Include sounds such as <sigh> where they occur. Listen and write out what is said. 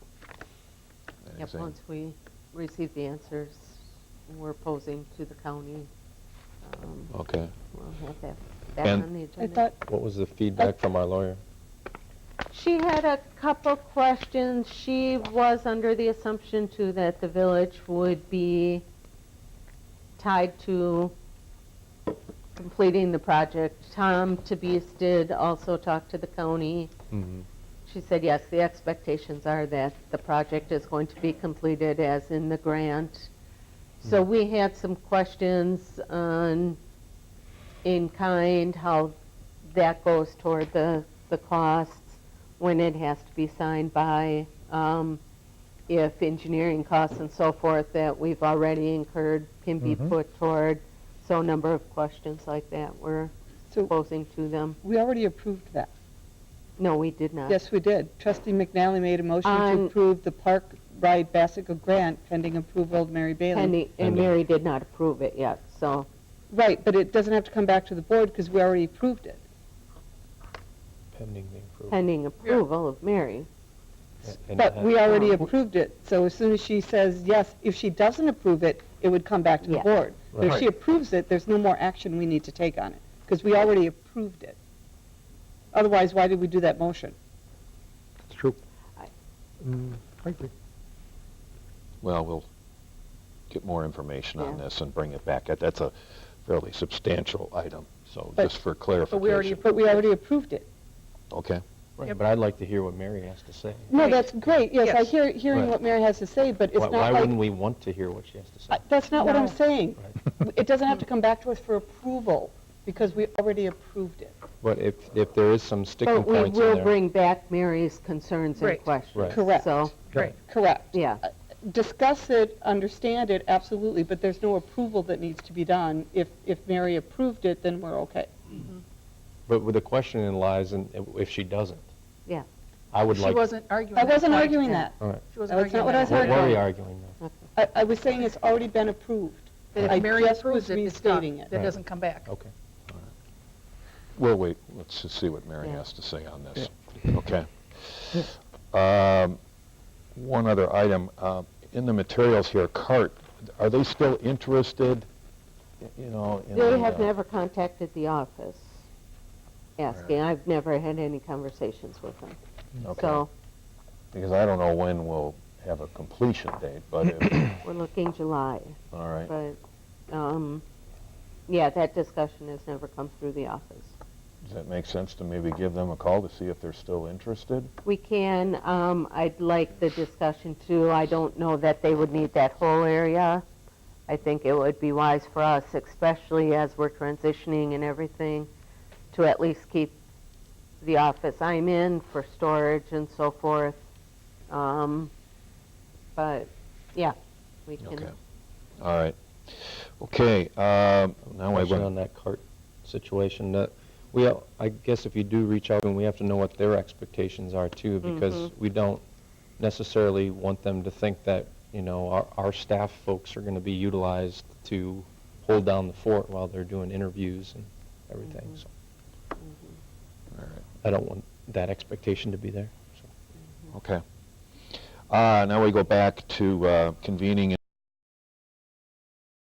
Yep, same. once we receive the answers, we're posing to the county. um, Okay. We'll have that back And- on the I agenda. thought What was the feedback from our lawyer? She had a couple questions. She was under the assumption too that the village would be tied to completing the project. Tom Tabees did also talk to the county. Mhm. She said, yes, the expectations are that the project is going to be completed as in the grant. So we had some questions on in-kind, how that goes toward the, the costs, when it has to be signed by, um, if engineering costs and so forth that we've already incurred can be Mm-hmm. Mhm. put toward. So a number of questions like that were so. posing to them. We already approved that. No, we did not. Yes, we did. Trustee McNally made a motion On- to approve the Park Ride Bassica Grant pending approval of Mary Bailey. Penny, and Pending. Mary did not approve it yet, so, Right, but it doesn't have to come back to the board because we already approved it. Pending the approval. pending approval of Mary. And But that- we already Um, approved it, so as soon as she says yes, if she doesn't approve it, it would come back to the Yeah. board. But if Right. she approves it, there's no more action we need to take on it, because we already approved it. Otherwise, why did we do that motion? It's true. I- Mm, I agree. Well, we'll get more information on Yeah. this and bring it back. That- That's a fairly substantial item, so But- just for clarification. But we already approved it. Okay. Yep. But I'd like to hear what Mary has to say. No, Right. that's great, yes, I Yes. hear, hearing Right. what Mary has to say, but it's Why not why like... wouldn't we want to hear what she has to say? I- That's not what I'm No. saying. It doesn't have to come back to us for approval, because we already approved it. But if, if there is some sticking But we points in there. will bring back Mary's concerns and Right. questions. Right. Correct. Uh, So, Right. Correct. yeah, Discuss it, understand it, absolutely, but there's no approval that needs to be done. If, if Mary approved it, then we're okay. But with the question in lies in if she doesn't. Yeah. I would She like. wasn't arguing. I that wasn't point. arguing that. She wasn't That's not arguing what I that. was What arguing. what are we arguing now? I, I was saying it's already been approved. That I if Mary just approves was it, it's done. restating it. Right. That doesn't come back. Okay. We'll wait, let's just see what Mary Yeah. has to say on this. Okay. Um, One other item, uh, in the materials here, CART, are they still interested, y- you know? in they the, have uh, never contacted the office asking. I've never had any conversations with them. okay. So Because I don't know when we'll have a completion date, but, if- <coughs> we're looking July, all right. but, um, yeah, that discussion has never come through the office. Does that make sense to maybe give them a call to see if they're still interested? We can, um, I'd like the discussion too. I don't know that they would need that whole area. I think it would be wise for us, especially as we're transitioning and everything, to at least keep the office I'm in for storage and so forth. Um, but, yeah, we Okay. can, All right. Okay, um, now I question went, on that cart situation. That we, al- I guess if you do reach out, and we have to know what their expectations are too, because we don't necessarily want them to think that you know our, our staff folks are going to be utilized to hold down the fort while they're doing interviews and everything. So all right. I don't want that expectation to be there. So. Okay. Uh, Now we go back to uh, convening